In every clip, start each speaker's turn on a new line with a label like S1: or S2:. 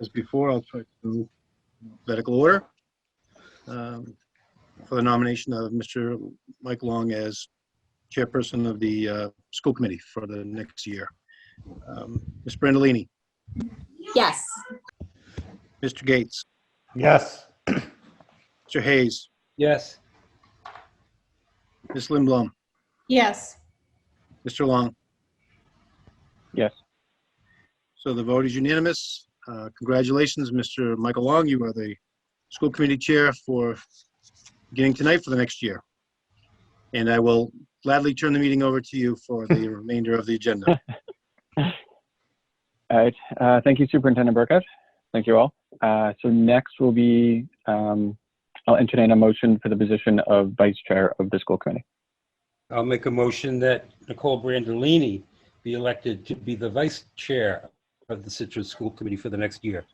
S1: as before, I'll try to move alphabetical order. Um, For the nomination of Mr. Mike Long as chairperson of the uh, school committee for the next year. Um, Ms. Brandalini,
S2: Yes.
S1: Mr. Gates,
S3: Yes.
S1: Mr. Hayes,
S3: Yes.
S1: Ms. Lindblom,
S2: Yes.
S1: Mr. Long.
S3: Yes.
S1: So the vote is unanimous. Uh, Congratulations, Mr. Michael Long. You are the school committee chair for beginning tonight for the next year. And I will gladly turn the meeting over to you for the remainder of the agenda.
S4: All right. Uh, thank you, Superintendent Burkett. Thank you all. Uh, so next will be, um, I'll entertain a motion for the position of Vice Chair of the School Committee.
S3: I'll make a motion that Nicole Brandolini be elected to be the vice chair of the Citrus School Committee for the next year.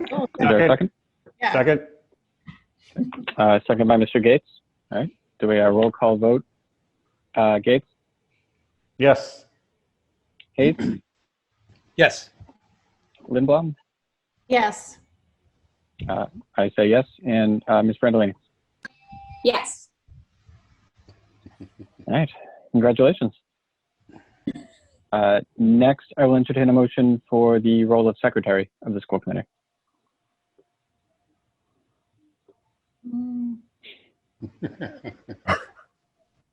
S4: Is there a second?
S5: Second?
S4: Uh, second by Mr. Gates. All right. Do we have a roll call vote? Uh, Gates,
S5: Yes.
S4: Hayes,
S3: Yes,
S4: Lindblom?
S2: Yes.
S4: I say yes. And, uh, Ms. Brandolini?
S2: Yes.
S4: All right. Congratulations. Uh, next, I will entertain a motion for the role of Secretary of the School Committee.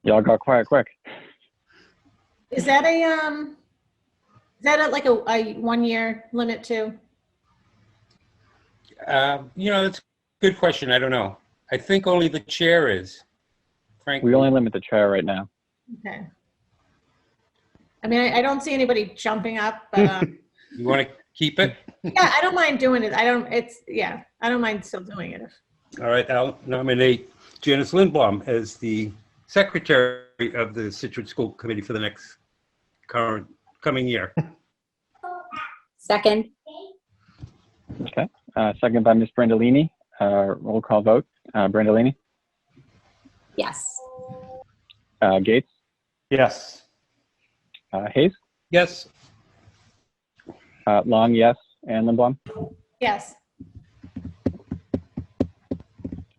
S4: Y'all got quiet quick.
S2: Is that a, um, is that a- like a, a one-year limit too?
S3: Um, you know, that's a good question. I don't know. I think only the chair is. Frank,
S4: We only limit the chair right now.
S2: Okay. I mean, I, I don't see anybody jumping up, but, um,
S3: you want to keep it?
S2: yeah, I don't mind doing it. I don't, it's, yeah, I don't mind still doing it.
S3: All right, I'll nominate Janice Lindblom as the secretary of the Citrus School Committee for the next current, coming year.
S6: Second,
S4: Uh, second by Ms. Brandolini. Uh, roll call vote. Uh, Brandolini,
S6: yes.
S4: uh, Gates,
S5: Yes.
S4: uh, Hayes,
S3: Yes,
S4: uh, Long, yes, and Lindblom.
S2: Yes.
S4: I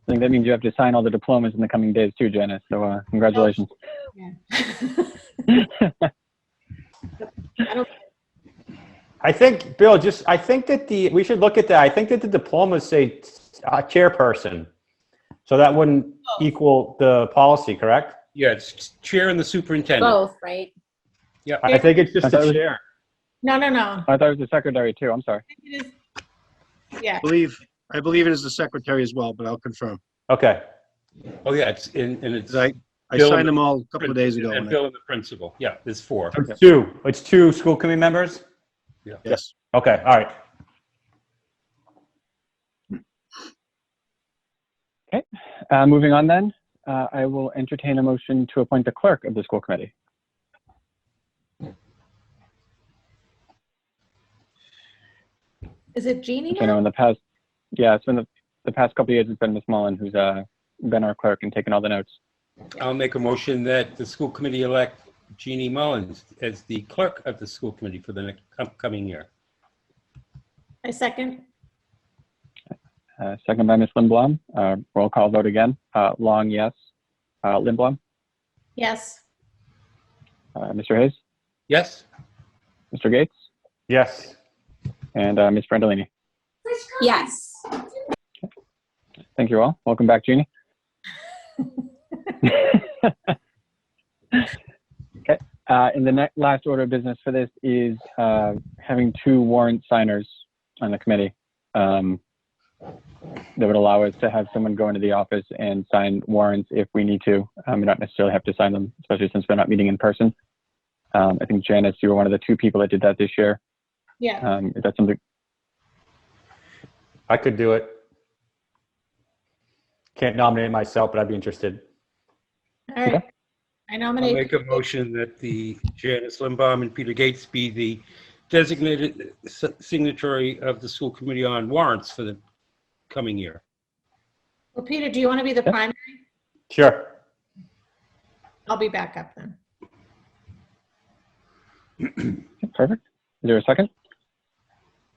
S4: think that means you have to sign all the diplomas in the coming days too, Janice. So uh, congratulations.
S2: Yeah. I don't,
S5: I think, Bill, just, I think that the, we should look at that. I think that the diplomas say uh, chairperson. So that wouldn't equal the policy, correct?
S3: yeah, it's chair and the superintendent.
S6: Both, right?
S5: I think it's just
S4: I thought it
S5: the
S4: was-
S5: chair.
S2: no, no, no.
S4: I thought it was the secretary too. I'm sorry.
S2: It is- Yeah,
S1: I Believe, I believe it is the secretary as well, but I'll confirm.
S5: Okay.
S3: Oh, yeah, it's in, and it's.
S1: 'Cause I, I
S3: Bill-
S1: signed them all a couple of days ago.
S3: And
S1: and I-
S3: Bill and the principal, yeah, there's four.
S5: It's two, it's two school committee members?
S1: Yes.
S5: Okay, all right.
S4: Uh, moving on then, uh, I will entertain a motion to appoint the clerk of the school committee.
S2: is it Jeannie
S4: I know
S2: now?
S4: in the past, yeah, it's been the, the past couple of years, it's been Ms. Mullen who's uh, been our clerk and taken all the notes.
S3: I'll make a motion that the school committee elect Jeannie Mullins as the clerk of the school committee for the next upcoming year.
S2: I second.
S4: Uh, second by Ms. Lindblom. Uh, roll call vote again. Uh, Long, yes. Uh, Lindblom,
S2: Yes.
S4: uh, Mr. Hayes,
S3: Yes,
S4: Mr. Gates,
S5: Yes.
S4: and uh, Ms. Brandolini.
S6: Yes.
S4: Thank you all. Welcome back, Jeannie. okay. Uh, and the next, last order of business for this is uh, having two warrant signers on the committee um, that would allow us to have someone go into the office and sign warrants if we need to. Um, we don't necessarily have to sign them, especially since we're not meeting in person. Um, I think Janice, you were one of the two people that did that this year.
S2: Yeah.
S4: Um, is that something?
S5: I could do it. Can't nominate myself, but I'd be interested.
S2: All right. I
S3: I'll
S2: nominate.
S3: make a motion that the Janice Limbaum and Peter Gates be the designated s- signatory of the school committee on warrants for the coming year.
S2: Well, Peter, do you want to be the
S4: Yeah.
S2: primary?
S5: Sure.
S2: I'll be backup then.
S4: Perfect. Is there a second?